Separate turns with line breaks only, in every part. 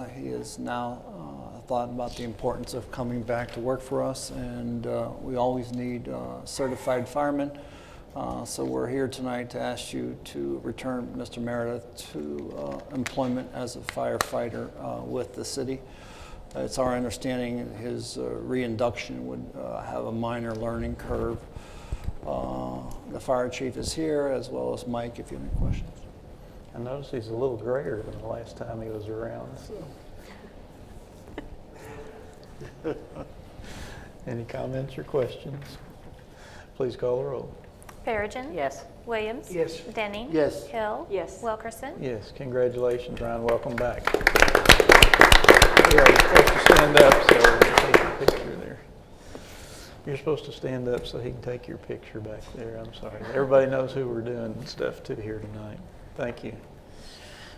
has Uh, now uh, thought about the importance of coming back to work for us, and uh, we always need uh, certified firemen. Uh, So we're here tonight to ask you to return Mr. Meredith to uh, employment as a firefighter uh, with the city. It's our understanding his uh, reinduction would uh, have a minor learning curve. Uh, The fire chief is here, as well as Mike, if you have any questions.
I noticed he's a little grayer than the last time he was around. Any comments or questions? Please call the roll.
Perigin.
Yes.
Williams.
Yes.
Denning.
Yes.
Hill.
Yes.
Wilkerson.
Yes, congratulations, Ryan, welcome back. Yeah, You're supposed to stand up so we can take your picture there. You're supposed to stand up so he can take your picture back there, I'm sorry. Everybody knows who we're doing stuff to here tonight. Thank you.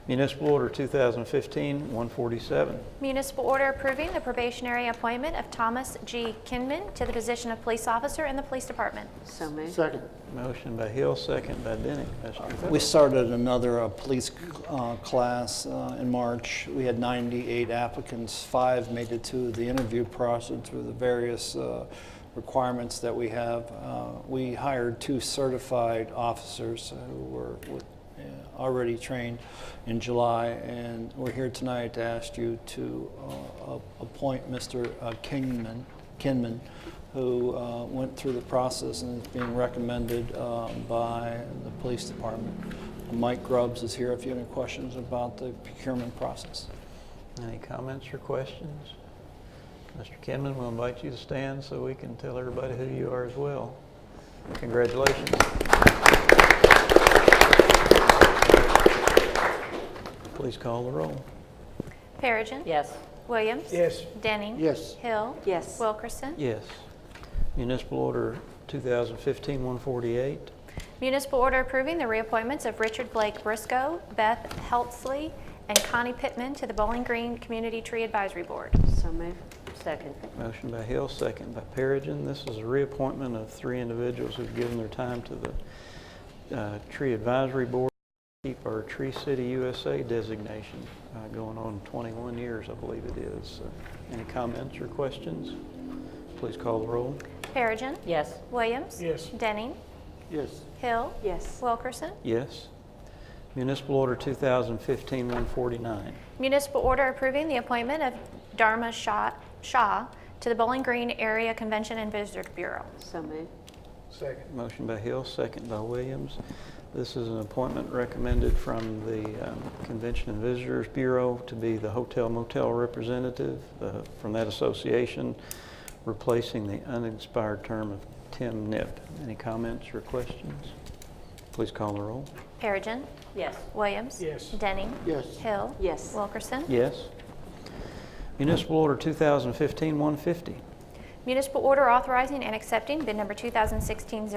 Municipal Order 2015-147.
Municipal order approving the probationary appointment of Thomas G. Kinman to the position of police officer in the police department.
So moved.
Second.
Motion by Hill, second by Denning. Mr.
We started another uh, police uh, class uh, in March. We had 98 applicants. Five made it to the interview process through the various uh, requirements that we have. Uh, We hired two certified officers who were with- uh, already trained in July, and we're here tonight to ask you to uh, a- appoint Mr. uh, Kingman, Kinman, who uh, went through the process and is being recommended uh, by the police department. Mike Grubbs is here if you have any questions about the procurement process.
Any comments or questions? Mr. Kinman, we'll invite you to stand so we can tell everybody who you are as well. Congratulations. Please call the roll.
Perigin.
Yes.
Williams.
Yes.
Denning.
Yes.
Hill.
Yes.
Wilkerson.
Yes. Municipal Order 2015-148.
Municipal order approving the reappointments of Richard Blake Briscoe, Beth Heltzley, and Connie Pittman to the Bowling Green Community Tree Advisory Board.
So moved. Second.
Motion by Hill, second by Perigin. This is a reappointment of three individuals who've given their time to the uh, Tree Advisory Board. Keep our Tree City USA designation uh, going on 21 years, I believe it is. So, Any comments or questions? Please call the roll.
Perigin.
Yes.
Williams.
Yes.
Denning.
Yes.
Hill.
Yes.
Wilkerson.
Yes. Municipal Order 2015-149.
Municipal order approving the appointment of Dharma Shaw, Shaw to the Bowling Green Area Convention and Visitor Bureau.
So moved.
Second.
Motion by Hill, second by Williams. This is an appointment recommended from the um, Convention and Visitors Bureau to be the hotel motel representative uh, from that association, replacing the unexpired term of Tim Nip. Any comments or questions? Please call the roll.
Perigin.
Yes.
Williams.
Yes.
Denning.
Yes.
Hill.
Yes.
Wilkerson.
Yes. Municipal Order 2015-150.
Municipal order authorizing and accepting bid number 2016-01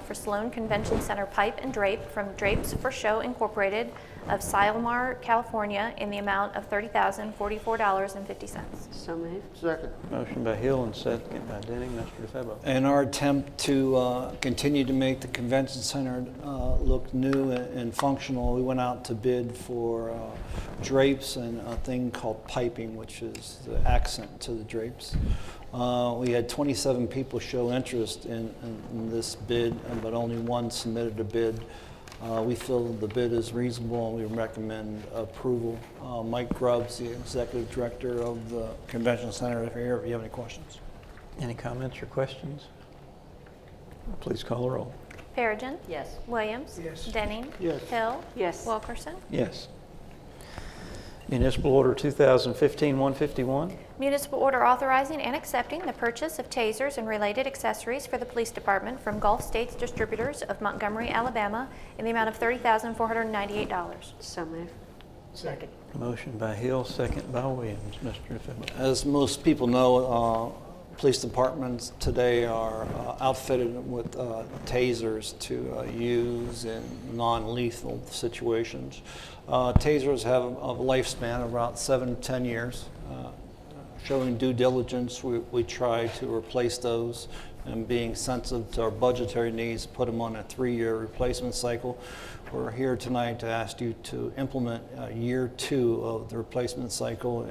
for Sloan Convention Center pipe and drape from Drapes for Show Incorporated of Silmar, California, in the amount of $30,044.50.
So moved.
Second.
Motion by Hill and second by Denning. Mr. DeFebo.
In our attempt to uh, continue to make the convention center uh, look new and and functional, we went out to bid for uh, drapes and a thing called piping, which is the accent to the drapes. Uh, We had 27 people show interest in in- in this bid, uh, but only one submitted a bid. Uh, We feel the bid is reasonable, and we recommend approval. Uh, Mike Grubbs, the executive director of the convention center, if you're here, if you have any questions.
Any comments or questions? Please call the roll.
Perigin.
Yes.
Williams.
Yes.
Denning.
Yes.
Hill.
Yes.
Wilkerson.
Yes. Municipal Order 2015-151,
Municipal order authorizing and accepting the purchase of tasers and related accessories for the police department from Gulf States Distributors of Montgomery, Alabama, in the amount of $30,498.
So moved. Second.
motion by Hill, second by Williams. Mr. DeFebo.
As most people know, uh, police departments today are uh, outfitted with uh, tasers to uh, use in non-lethal situations. Uh, Tasers have a lifespan of about seven to 10 years. Uh, Showing due diligence, we we try to replace those and being sensitive to our budgetary needs, put them on a three-year replacement cycle. We're here tonight to ask you to implement uh, year two of the replacement cycle